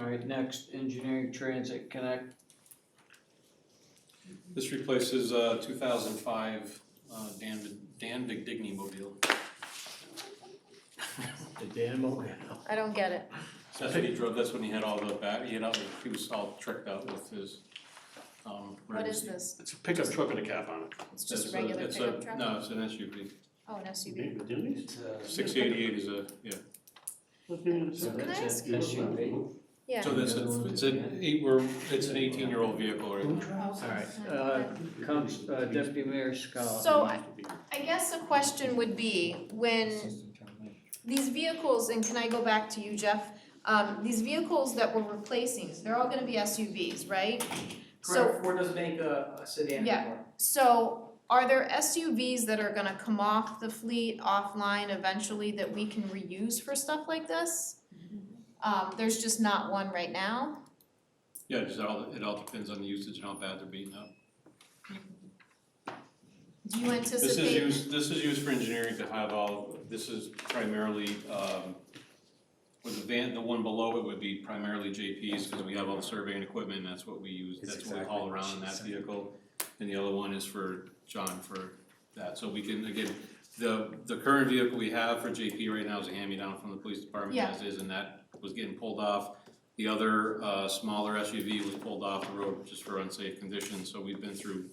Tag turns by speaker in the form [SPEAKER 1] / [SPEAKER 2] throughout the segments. [SPEAKER 1] Alright, next, engineering transit connect,
[SPEAKER 2] This replaces uh two thousand five uh Dan Dan Digny mobile.
[SPEAKER 3] The Dynamo.
[SPEAKER 4] I don't get it.
[SPEAKER 2] So that's what he drove, that's when he had all the back, he had all, the- he was all tricked out with his um.
[SPEAKER 4] What is
[SPEAKER 2] emergency-
[SPEAKER 4] this?
[SPEAKER 3] It's a pickup truck with a cap on it.
[SPEAKER 4] It's just
[SPEAKER 2] That's uh,
[SPEAKER 4] a regular
[SPEAKER 2] it's
[SPEAKER 4] pickup truck?
[SPEAKER 2] No, it's an SUV,
[SPEAKER 4] Oh, an SUV.
[SPEAKER 3] Denny's?
[SPEAKER 1] uh,
[SPEAKER 2] six eighty-eight is a, yeah,
[SPEAKER 4] Can I ask?
[SPEAKER 1] SUV.
[SPEAKER 4] Yeah.
[SPEAKER 2] so that's, a- it's an eight, we're, it's an eighteen-year-old vehicle right now.
[SPEAKER 1] Alright, uh,
[SPEAKER 4] Okay.
[SPEAKER 1] comes uh, Deputy Mayor Scott.
[SPEAKER 4] So I, I guess the question would be, when these vehicles, and can I go back to you, Jeff? Um, these vehicles that we're replacing, they're all gonna be SUVs, right? So,
[SPEAKER 5] Correct, Ford doesn't make a a sedan
[SPEAKER 4] Yeah.
[SPEAKER 5] anymore.
[SPEAKER 4] so are there SUVs that are gonna come off the fleet offline eventually that we can reuse for stuff like this? Um, there's just not one right now.
[SPEAKER 2] Yeah, just all, it all depends on the usage and how bad they're beaten up.
[SPEAKER 4] Do you
[SPEAKER 2] This is
[SPEAKER 4] anticipate,
[SPEAKER 2] used, this is used for engineering to have all, this is primarily, um, with the van, the one below it would be primarily JP's, cause we have all the surveying equipment, that's what we use,
[SPEAKER 6] It's
[SPEAKER 2] that's what we haul
[SPEAKER 6] exactly what
[SPEAKER 2] around in
[SPEAKER 6] she
[SPEAKER 2] that
[SPEAKER 6] said.
[SPEAKER 2] vehicle. And the other one is for John for that, so we can, again, the, the current vehicle we have for JP right now is a hand-me-down from the police department
[SPEAKER 4] Yeah.
[SPEAKER 2] as is, and that was getting pulled off. The other, uh, smaller SUV was pulled off the road just for unsafe conditions, so we've been through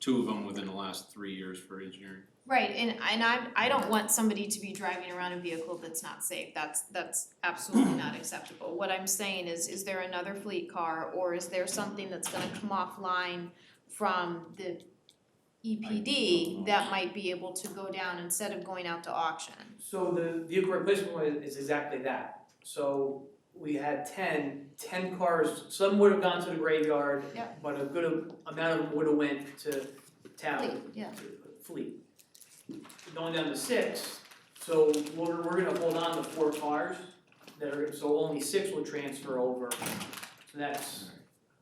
[SPEAKER 2] two of them within the last three years for engineering.
[SPEAKER 4] right, and and I I don't want somebody to be driving around a vehicle that's not safe, that's that's absolutely not acceptable. What I'm saying is, is there another fleet car or is there something that's gonna come offline from the EPD that might be able to go down instead of going out to auction?
[SPEAKER 5] So the vehicle replacement one is- is exactly that. So we had 10, 10 cars, some would have gone to the graveyard,
[SPEAKER 4] Yep.
[SPEAKER 5] but a good amount of them would have went to
[SPEAKER 4] Fleet,
[SPEAKER 5] town,
[SPEAKER 4] yeah,
[SPEAKER 5] fleet. Going down to six, so we're, we're gonna hold on to four cars that are, so only six will transfer over. So that's,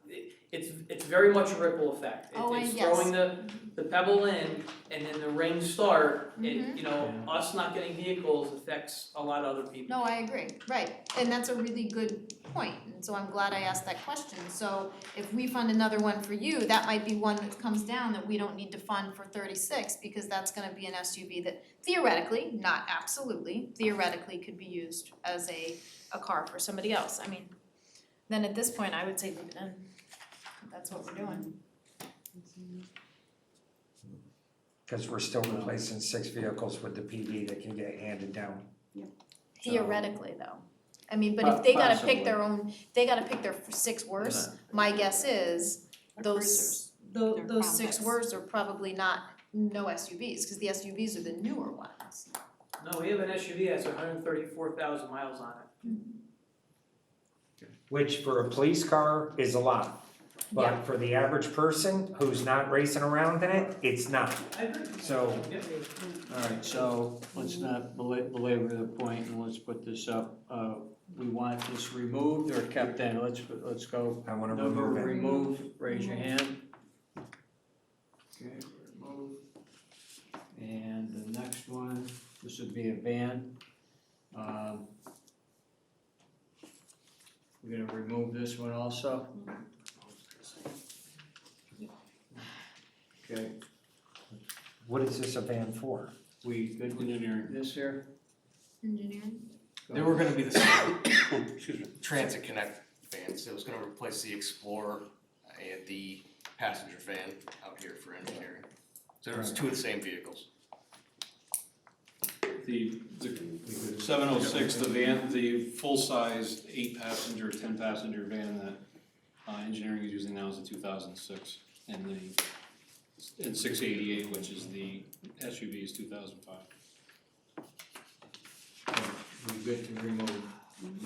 [SPEAKER 5] it- it's, it's very much a ripple effect. It-
[SPEAKER 4] Oh, I-
[SPEAKER 5] It's
[SPEAKER 4] yes.
[SPEAKER 5] throwing the, the pebble in and then the rain start,
[SPEAKER 4] Mhm.
[SPEAKER 5] it, you know,
[SPEAKER 1] Yeah.
[SPEAKER 5] us not getting vehicles affects a lot of other people.
[SPEAKER 4] no, I agree, right, and that's a really good point, and so I'm glad I asked that question. So if we fund another one for you, that might be one that comes down that we don't need to fund for thirty-six, because that's gonna be an SUV that theoretically, not absolutely, theoretically could be used as a a car for somebody else, I mean, then at this point, I would say leave it in, if that's what we're doing.
[SPEAKER 6] Cause we're still replacing six vehicles with the PD that can get handed down.
[SPEAKER 4] Theoretically, though, I mean, but if they gotta pick
[SPEAKER 3] Possibly.
[SPEAKER 4] their own, they gotta pick their six worst, my guess is those, tho-
[SPEAKER 7] They're
[SPEAKER 4] those six
[SPEAKER 7] compacts.
[SPEAKER 4] words are probably not no SUVs, cause the SUVs are the newer ones.
[SPEAKER 5] No, we have an SUV that's hundred and thirty-four thousand miles on it.
[SPEAKER 6] Which for a police car is a lot,
[SPEAKER 4] Yeah.
[SPEAKER 6] but for the average person who's not racing around in it, it's not.
[SPEAKER 5] I agree.
[SPEAKER 6] So
[SPEAKER 5] Yep.
[SPEAKER 1] Alright, so let's not bela- belabor the point and let's put this up, uh, we want this removed or kept in, let's, let's go
[SPEAKER 6] I wanna
[SPEAKER 1] Number
[SPEAKER 6] remove it.
[SPEAKER 1] removed, raise your hand. Okay, remove. And the next one, this would be a van. Um, We're gonna remove this one also. Okay,
[SPEAKER 6] What is this a van for?
[SPEAKER 1] we good with
[SPEAKER 2] Engineering.
[SPEAKER 1] this here?
[SPEAKER 4] Engineering?
[SPEAKER 1] Go
[SPEAKER 8] They were gonna be the same, excuse me, Transit Connect vans, it was gonna replace the Explorer and the passenger van out here for engineering. So there was two of the same vehicles.
[SPEAKER 2] The, the seven oh six, the van, the full-size eight-passenger, ten-passenger van that, uh, engineering is using now is a two thousand six. And the, and six eighty-eight, which is the SUV is two thousand five.
[SPEAKER 1] We're good to remove.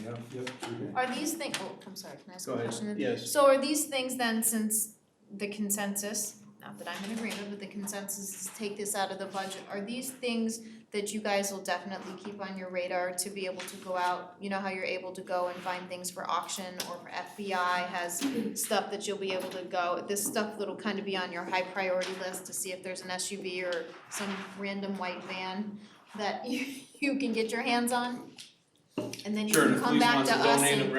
[SPEAKER 6] Yep.
[SPEAKER 1] Yep.
[SPEAKER 4] Are these things, oh, I'm sorry, can I ask
[SPEAKER 1] Go
[SPEAKER 4] a
[SPEAKER 1] ahead,
[SPEAKER 4] question?
[SPEAKER 1] yes.
[SPEAKER 4] So are these things then, since the consensus, not that I'm in agreement, but the consensus is take this out of the budget, are these things that you guys will definitely keep on your radar to be able to go out, you know how you're able to go and find things for auction or for FBI has stuff that you'll be able to go, this stuff that'll kind of be on your high priority list to see if there's an SUV or some random white van that you, you can get your hands on? And then you
[SPEAKER 2] Sure, and
[SPEAKER 4] can
[SPEAKER 2] if
[SPEAKER 4] come
[SPEAKER 2] police
[SPEAKER 4] back
[SPEAKER 2] wants
[SPEAKER 4] to
[SPEAKER 2] to
[SPEAKER 4] us and.
[SPEAKER 2] donate a